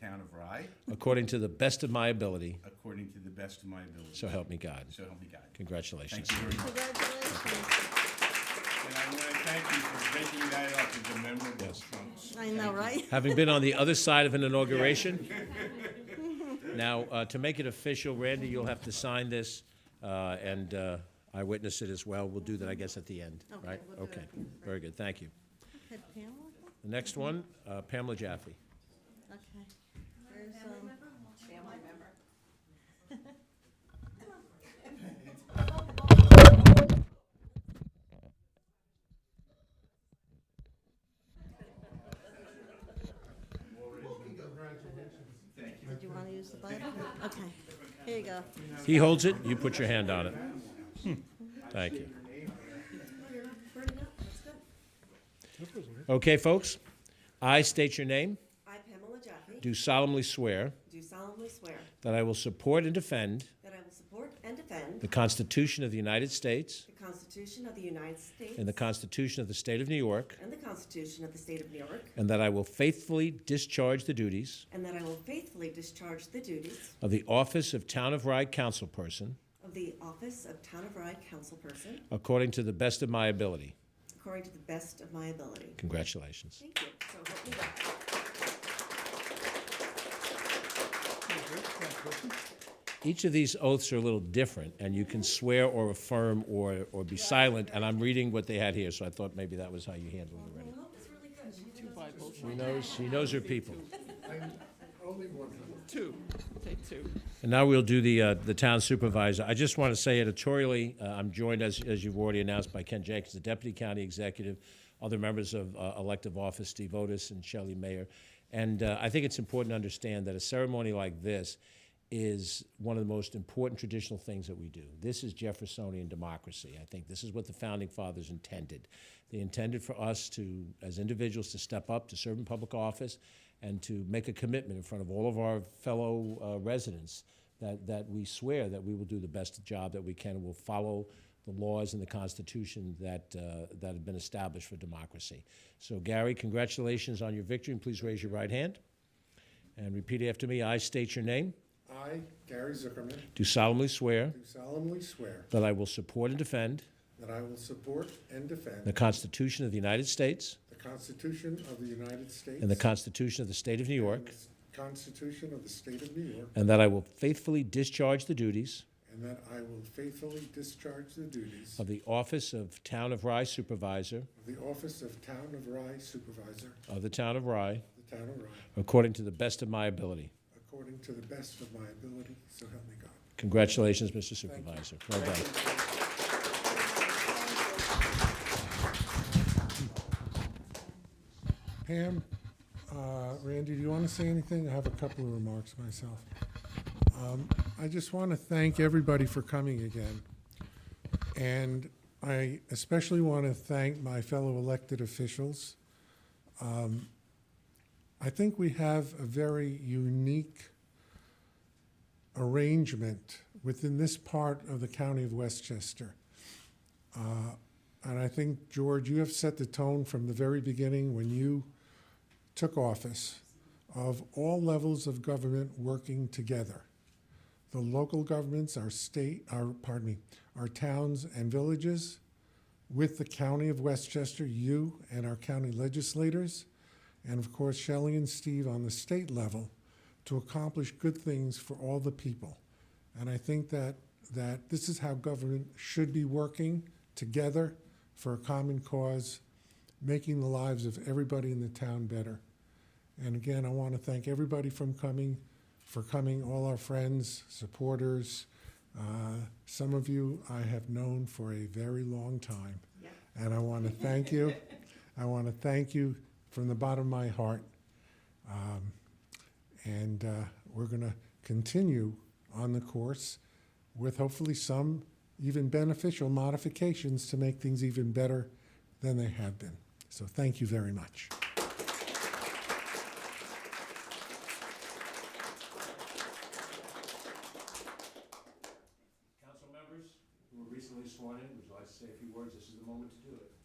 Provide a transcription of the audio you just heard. town of Rye according to the best of my ability. according to the best of my ability. So help me God. So help me God. Congratulations. Thank you very much. Congratulations. And I want to thank you for making that up as a memorable trunk. I know, right? Having been on the other side of an inauguration, now, uh, to make it official, Randy, you'll have to sign this, uh, and uh, I witness it as well. We'll do that, I guess, at the end, Okay, right? we'll do it Okay, at the end, right. very good, thank you. Had Pamela? The next one, uh, Pamela Jaffe. Okay. There's, um, do you want to use the Bible? Okay, here you go. He holds it, you put your hand on it. Hmm. Thank you. Okay, folks, I state your name, I, Pamela Jaffe, do solemnly swear do solemnly swear that I will support and defend that I will support and defend the Constitution of the United States the Constitution of the United States and the Constitution of the State of New York, and the Constitution of the State of New York, and that I will faithfully discharge the duties and that I will faithfully discharge the duties of the office of Town of Rye Councilperson of the office of Town of Rye Councilperson according to the best of my ability. according to the best of my ability. Congratulations. Thank you. So help me God. Each of these oaths are a little different, and you can swear or affirm or, or be silent, and I'm reading what they had here, so I thought maybe that was how you handled it already. She knows, she knows her people. Two, take two. And now we'll do the, uh, the town supervisor. I just want to say editorially, uh, I'm joined, as, as you've already announced, by Ken Jenkins, the deputy county executive, other members of uh, elective office, Steve Otis and Shelley Mayer. And uh, I think it's important to understand that a ceremony like this is one of the most important traditional things that we do. This is Jeffersonian democracy. I think this is what the founding fathers intended. They intended for us to, as individuals, to step up, to serve in public office, and to make a commitment in front of all of our fellow uh, residents that, that we swear that we will do the best job that we can and will follow the laws and the Constitution that, uh, that have been established for democracy. So, Gary, congratulations on your victory, and please raise your right hand and repeat after me. I state your name, I, Gary Zuckerman, do solemnly swear do solemnly swear that I will support and defend that I will support and the defend Constitution of the United States the Constitution of the United States and the Constitution of the State of New and York, the Constitution of the State of New York, and that I will faithfully discharge the duties and that I will faithfully discharge the duties of of the Office of Town of Rye Supervisor the Office of Town of Rye Supervisor of the Town of Rye of the Town of Rye according to the best of my ability. according to the best of my ability, so help me God. Congratulations, Mr. Supervisor. Well done. Pam, uh, Randy, do you want to say anything? I have a couple of remarks myself. Um, I just want to thank everybody for coming again. And I especially want to thank my fellow elected officials. Um, I think we have a very unique arrangement within this part of the county of Westchester. Uh, And I think, George, you have set the tone from the very beginning when you took office of all levels of government working together. The local governments, our state, our, pardon me, our towns and villages, with the county of Westchester, you and our county legislators, and of course Shelley and Steve on the state level to accomplish good things for all the people. And I think that, that this is how government should be working together for a common cause, making the lives of everybody in the town better. And again, I want to thank everybody from coming, for coming, all our friends, supporters. Uh, some of you I have known for a very long time. And I want to thank you. I want to thank you from the bottom of my heart. Um, and uh, we're going to continue on the course with hopefully some even beneficial modifications to make things even better than they have been. So thank you very much. Council members who were recently sworn in, would you like to say a few words? This is the moment to do it.